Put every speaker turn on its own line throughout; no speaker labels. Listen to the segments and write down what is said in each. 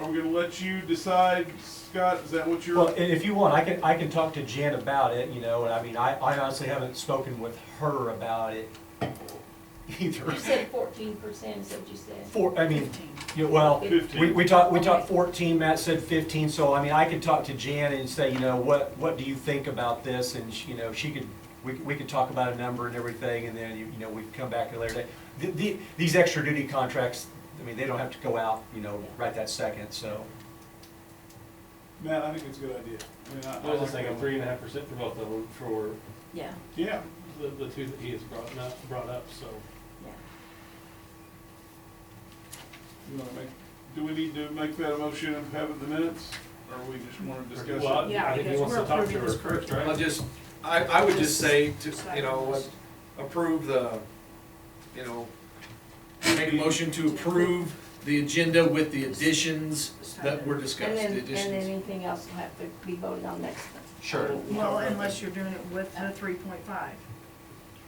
I'm gonna let you decide, Scott, is that what you're?
Well, i- if you want, I can, I can talk to Jan about it, you know, and I mean, I, I honestly haven't spoken with her about it either.
You said fourteen percent is what you said.
Four, I mean, you, well, we,
Fifteen.
we talked, we talked
Okay.
fourteen, Matt said fifteen, so I mean, I could talk to Jan and say, you know, what, what do you think about this? And, she- you know, she could, we, we could talk about a number and everything, and then, you you know, we could come back at a later date. The, the, these extra duty contracts, I mean, they don't have to go out, you know, right that second, so.
Matt, I think it's a good idea. I mean, I-
I was just thinking three and a half percent for both of them for
Yeah,
Yeah,
the, the two that he has brought up, brought up, so.
yeah.
you wanna make, do we need to make that a motion and have it in the minutes? Or we just wanna discuss
Well,
it?
I-
Yeah,
I think he
because
wants
we're
to talk to
approving
her
this
first,
I'll
right?
just, I, I would just say to, you know, approve the, you know, make a motion to approve the agenda with the additions that were discussed,
And then,
the
and then
additions.
anything else will have to be voted on next time.
Sure.
Well, unless you're doing it with the three point five.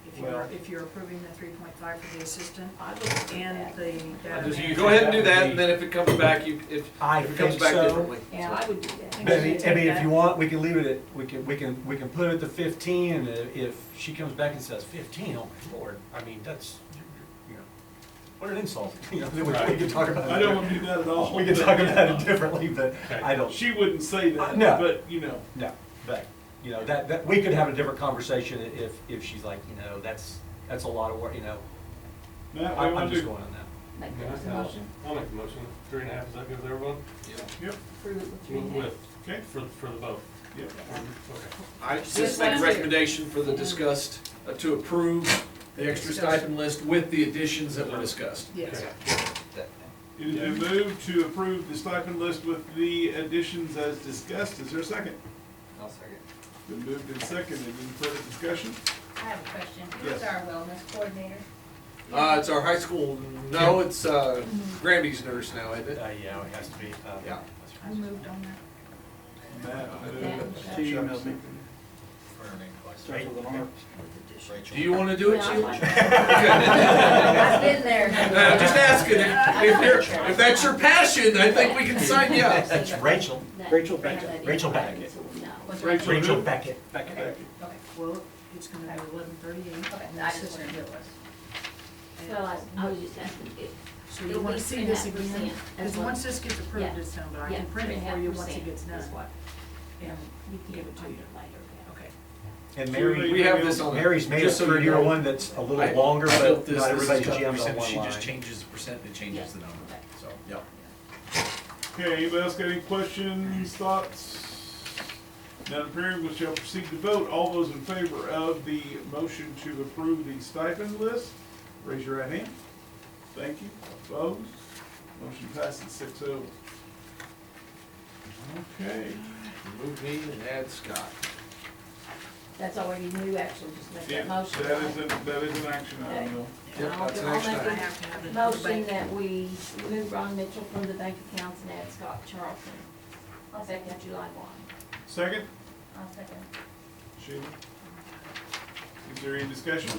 If you're,
Well-
if you're approving the three point five for the assistant
I would do
and
that.
the
I just
data
use-
Go ahead and do that, and then if it comes back, you, if,
I
if it comes
think
back
so.
differently.
Yeah, I would do
But I
that.
mean, I mean, if you want, we can leave it at, we can, we can, we can put it at the fifteen, and i- if she comes back and says fifteen, oh my lord, I mean, that's, you know, what an insult, you know, then we we can talk about it.
I don't wanna do that at all.
We can talk about it differently, but I don't,
She wouldn't say that,
No.
but, you know,
no, but, you know, that, that, we could have a different conversation i- if, if she's like, you know, that's, that's a lot of work, you know,
Matt, we
I'm, I'm
wanna
just
do.
going on that.
Make
Yeah,
that a
I'll-
motion,
I'll make the motion, three and a half, is that good with everyone?
Yeah.
Yep,
approve it with three
With-
names.
With,
okay,
for, for the both.
yep.
Okay.
I just make a recommendation for the discussed, uh, to approve the extra stipend list with the additions that were discussed.
Yes.
Okay.
It has been moved to approve the stipend list with the additions as discussed. Is there a second?
I'll second.
Been moved and seconded. Any further discussion?
I have a question.
Yes.
Who's our wellness coordinator?
Uh, it's our high school, no, it's, uh, Grammy's nurse now, isn't it?
Uh, yeah, it has to be, uh.
Yeah.
I moved on that.
Matt moved.
Matt,
She
Chuck
emailed me.
Starts with an R. Rachel.
Do you wanna do it,
Yeah, I
Sheila?
like
I've been
Uh,
there.
just asking, if if you're, if that's your passion, I think we can sign you up.
That's Rachel,
that.
Rachel
Now that
Beckett.
it-
Rachel Beckett.
so we know.
Was
Rachel
Rachel?
Rachel
who?
Beckett.
Okay, okay.
Well, it's gonna be eleven thirty-eight.
Okay, I just wondered who it was.
Well, I, I was just asking if,
So you wanna see this again?
'Cause
Because once this gets approved, it's done, but I
yeah,
can print
three
it
and a
for
half
you once it
percent
gets done.
is what,
And
you can
give it to
under
you.
later, yeah.
Okay.
And Mary.
We have this on.
Mary's made a
just so you
thirty-year
know.
one that's a
I-
little longer,
I built
but
this,
not
this is
everybody
got
jams on
percent,
one
She
line.
just changes the percent, it changes the number, so, yeah.
Okay, anybody else got any questions, thoughts? None appearing, we shall proceed to vote. All those in favor of the motion to approve the stipend list, raise your right hand. Thank you. Opposed? Motion passes six oh. Okay.
Remove me and add Scott.
That's already new, actually, just make
Yeah,
that motion.
That
right?
is, an- that is an action item, though.
Yep,
I'll-
that's an
I'll
action
make
I
item.
a
have to have it. in the
Motion
bank.
that we remove Ron Mitchell from the bank accounts and add Scott Charlton,
I'll second,
effective July one.
Second?
I'll second.
Sheila? Is there any discussion?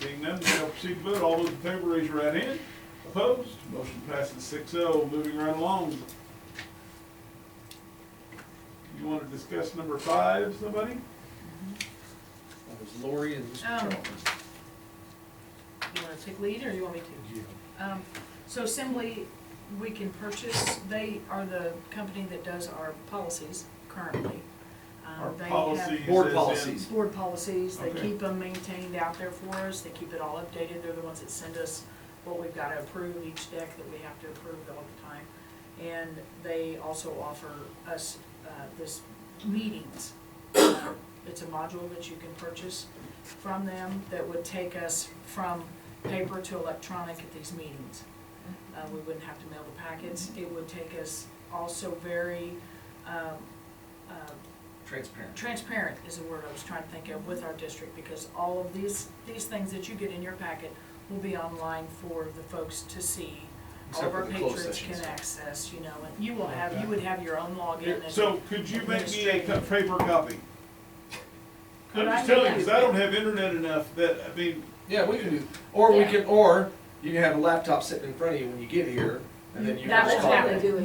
Seeing none, we shall proceed to vote. All those in favor, raise your right hand. Opposed? Motion passes six oh. Moving right along. You want to discuss number five, somebody?
That was Lori and Mr.
Oh.
Charlton.
You wanna take lead or you want me to? Um, so Assembly, we can purchase, they are the company that does our policies currently. Um,
Our
they have-
policies.
Board
as in-
policies.
Board policies, they
Okay.
keep them maintained out there for us, they keep it all updated, they're the ones that send us what we've gotta approve, each deck that we have to approve all the time. And they also offer us, uh, this meetings. It's a module that you can purchase from them that would take us from paper to electronic at these meetings. Uh, we wouldn't have to mail the packets, it would take us also very, um, uh,
Transparent.
transparent is the word I was trying to think of with our district, because all of these, these things that you get in your packet will be online for the folks to see. All
Except
of
for
our
the closed
patrons
sessions.
can access, you know, and you will have, you would have your own login. and-
So could you make me a co- paper copy? I'm
Could I
just telling you,
make-
'cause I don't have internet enough that, I mean,
Yeah, we can do, or we
Yeah.
can, or you can have a laptop sitting in front of you when you get here, and then you can
That's
just call
how
it.
they do it.